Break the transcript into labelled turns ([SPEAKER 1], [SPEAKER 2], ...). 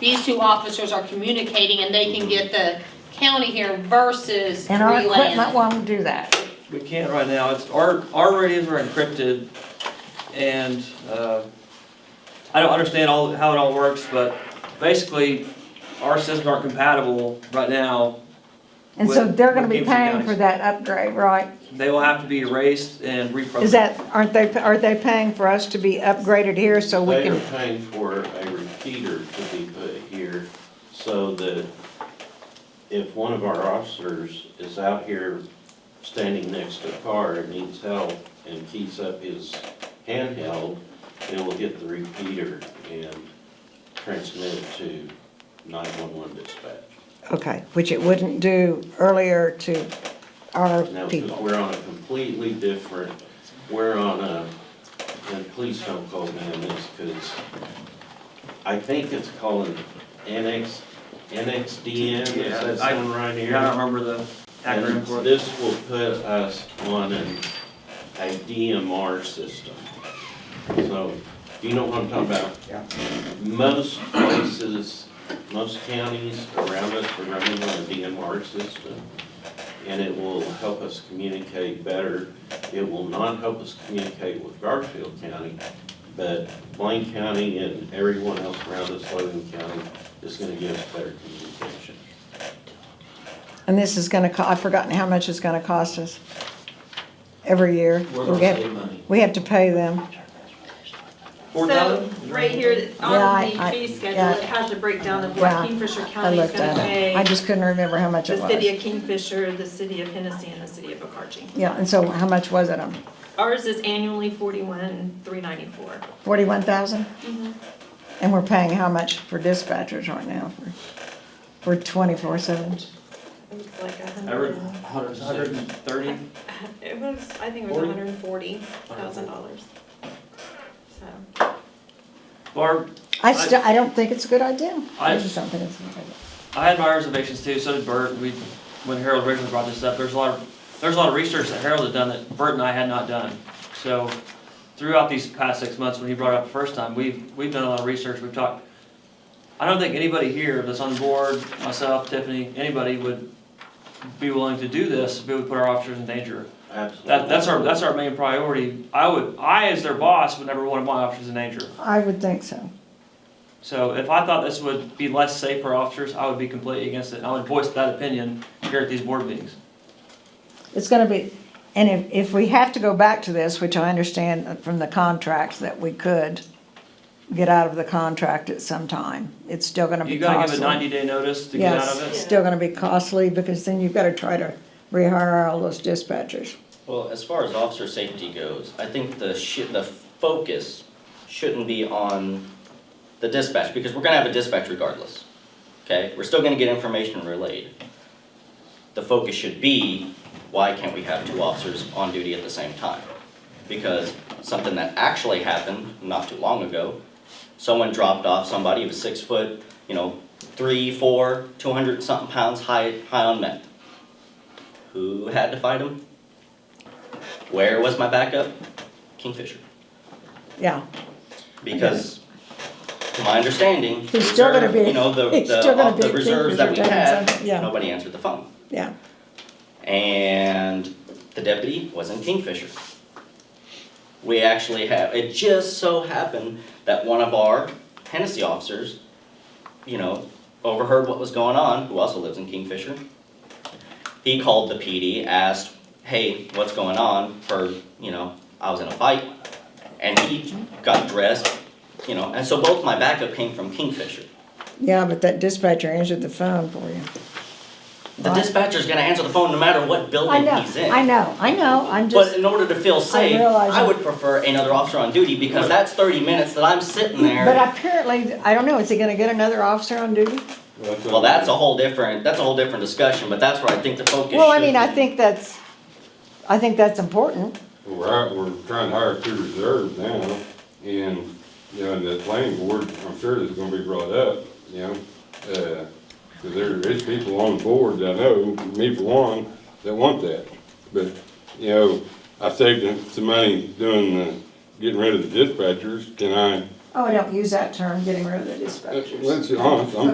[SPEAKER 1] these two officers are communicating and they can get the county here versus
[SPEAKER 2] And our equipment
[SPEAKER 1] relaying.
[SPEAKER 2] won't do that.
[SPEAKER 3] We can't right now, it's, our, our radios are encrypted, and, uh, I don't understand all, how it all works, but basically, our systems aren't compatible right now.
[SPEAKER 2] And so
[SPEAKER 3] with-
[SPEAKER 2] they're gonna
[SPEAKER 3] with
[SPEAKER 2] be
[SPEAKER 3] Gibson
[SPEAKER 2] paying for
[SPEAKER 3] County's.
[SPEAKER 2] that upgrade, right?
[SPEAKER 3] They will have to be erased and reprogrammed.
[SPEAKER 2] Is that, aren't they, are they paying for us to be upgraded here so we
[SPEAKER 4] They are
[SPEAKER 2] can?
[SPEAKER 4] paying for a repeater to be put here so that if one of our officers is out here standing next to a car and needs help and keys up his handheld, then we'll get the repeater and transmit it to nine-one-one dispatch.
[SPEAKER 2] Okay, which it wouldn't do earlier to our
[SPEAKER 4] Now, 'cause
[SPEAKER 2] people.
[SPEAKER 4] we're on a completely different, we're on a, and please don't call me on this, because I think it's called NX, NXDN, is
[SPEAKER 3] Yeah,
[SPEAKER 4] that
[SPEAKER 3] I-
[SPEAKER 4] sound right
[SPEAKER 3] I
[SPEAKER 4] here?
[SPEAKER 3] don't remember the acronym
[SPEAKER 4] And
[SPEAKER 3] for it.
[SPEAKER 4] this will put us on an, a DMR system. So, do you know what I'm talking about?
[SPEAKER 3] Yeah.
[SPEAKER 4] Most places, most counties around us are running on a DMR system, and it will help us communicate better. It will not help us communicate with Garfield County, but Blaine County and everyone else around us, Logan County, is gonna give us better communication.
[SPEAKER 2] And this is gonna, co- I've forgotten how much it's gonna cost us every year.
[SPEAKER 4] We're
[SPEAKER 2] We
[SPEAKER 4] gonna
[SPEAKER 2] have-
[SPEAKER 4] save money.
[SPEAKER 2] We have to pay them.
[SPEAKER 3] Four
[SPEAKER 5] So,
[SPEAKER 3] thousand?
[SPEAKER 5] right here,
[SPEAKER 2] Yeah,
[SPEAKER 5] on
[SPEAKER 2] I- I-
[SPEAKER 5] the fee
[SPEAKER 2] yeah.
[SPEAKER 5] schedule, it has a breakdown of
[SPEAKER 2] Yeah,
[SPEAKER 5] what Kingfisher
[SPEAKER 2] I
[SPEAKER 5] County is
[SPEAKER 2] looked
[SPEAKER 5] gonna
[SPEAKER 2] at it. I
[SPEAKER 5] pay,
[SPEAKER 2] just couldn't remember how much it
[SPEAKER 5] the city
[SPEAKER 2] was.
[SPEAKER 5] of Kingfisher, the city of Hennessy, and the city of Okarchi.
[SPEAKER 2] Yeah, and so how much was it? um,
[SPEAKER 5] Ours is annually forty-one, three ninety-four.
[SPEAKER 2] Forty-one thousand?
[SPEAKER 5] Mm-hmm.
[SPEAKER 2] And we're paying how much for dispatchers right now for, for twenty-four seven?
[SPEAKER 5] It was like a
[SPEAKER 3] I read
[SPEAKER 5] hundred, and-
[SPEAKER 3] hundred, hundred and thirty.
[SPEAKER 5] it was, I think it was
[SPEAKER 3] Forty?
[SPEAKER 5] hundred and forty thousand dollars. So,
[SPEAKER 3] Barb,
[SPEAKER 2] I still, I don't think it's a good idea.
[SPEAKER 3] I-
[SPEAKER 2] I just don't think it's a good idea.
[SPEAKER 3] I had my reservations too, so did Bert, we, when Harold originally brought this up, there's a lot of, there's a lot of research that Harold had done that Bert and I had not done. So throughout these past six months, when he brought it up the first time, we've, we've done a lot of research, we've talked. I don't think anybody here that's on board, myself, Tiffany, anybody would be willing to do this if it would put our officers in danger.
[SPEAKER 4] Absolutely.
[SPEAKER 3] That, that's our, that's our main priority. I would, I as their boss would never want my officers in danger.
[SPEAKER 2] I would think so.
[SPEAKER 3] So if I thought this would be less safe for officers, I would be completely against it, and I would voice that opinion here at these board meetings.
[SPEAKER 2] It's gonna be, and if, if we have to go back to this, which I understand from the contract that we could get out of the contract at some time, it's still gonna be
[SPEAKER 3] You
[SPEAKER 2] costly.
[SPEAKER 3] gotta give a ninety-day notice to get out of
[SPEAKER 2] Yes,
[SPEAKER 3] it.
[SPEAKER 5] it?
[SPEAKER 2] still gonna be costly because then you've gotta try to rehire all those dispatchers.
[SPEAKER 6] Well, as far as officer safety goes, I think the shi the focus shouldn't be on the dispatch, because we're gonna have a dispatch regardless. Okay, we're still gonna get information relayed. The focus should be, why can't we have two officers on duty at the same time? Because something that actually happened not too long ago, someone dropped off somebody who was six foot, you know, three, four, two hundred something pounds, high, high on meth. Who had to fight him? Where was my backup? Kingfisher.
[SPEAKER 2] Yeah,
[SPEAKER 6] Because, to my understanding,
[SPEAKER 2] He's still gonna
[SPEAKER 6] reserve-
[SPEAKER 2] be-
[SPEAKER 6] you know, the,
[SPEAKER 2] he's still
[SPEAKER 6] the,
[SPEAKER 2] gonna
[SPEAKER 6] of the
[SPEAKER 2] be
[SPEAKER 6] reserves that we
[SPEAKER 2] Kingfisher doing
[SPEAKER 6] had,
[SPEAKER 2] something, yeah.
[SPEAKER 6] nobody answered the phone.
[SPEAKER 2] yeah.
[SPEAKER 6] And the deputy was in Kingfisher. We actually have, it just so happened that one of our Hennessy officers, you know, overheard what was going on, who also lives in Kingfisher. He called the PD, asked, hey, what's going on, for, you know, I was in a fight. And he got dressed, you know, and so both my backup came from Kingfisher.
[SPEAKER 2] Yeah, but that dispatcher answered the phone for you.
[SPEAKER 6] The
[SPEAKER 2] Right.
[SPEAKER 6] dispatcher's gonna answer the phone no matter what
[SPEAKER 2] I
[SPEAKER 6] building
[SPEAKER 2] know,
[SPEAKER 6] he's in.
[SPEAKER 2] I know, I know, I'm
[SPEAKER 6] But
[SPEAKER 2] just,
[SPEAKER 6] in order to feel safe,
[SPEAKER 2] realize
[SPEAKER 6] I
[SPEAKER 2] it.
[SPEAKER 6] would prefer another officer on duty because that's thirty minutes that I'm sitting
[SPEAKER 2] but
[SPEAKER 6] there.
[SPEAKER 2] apparently, I don't know, is he gonna get another officer on duty?
[SPEAKER 6] Well, that's a whole different, that's a whole different discussion, but that's where I think the focus should be.
[SPEAKER 2] Well, I mean, I think that's, I think that's important.
[SPEAKER 7] We're, out- we're trying to hire two reserves now, and, you know, and the planning board, I'm sure this is gonna be brought up, you know, uh, 'cause there is people on board, that I know, me for one, that want that. But, you know, I saved some money doing the, getting rid of the dispatchers, can I
[SPEAKER 2] Oh, I don't use that term, getting rid of the dispatchers.
[SPEAKER 7] Let's be honest, I'm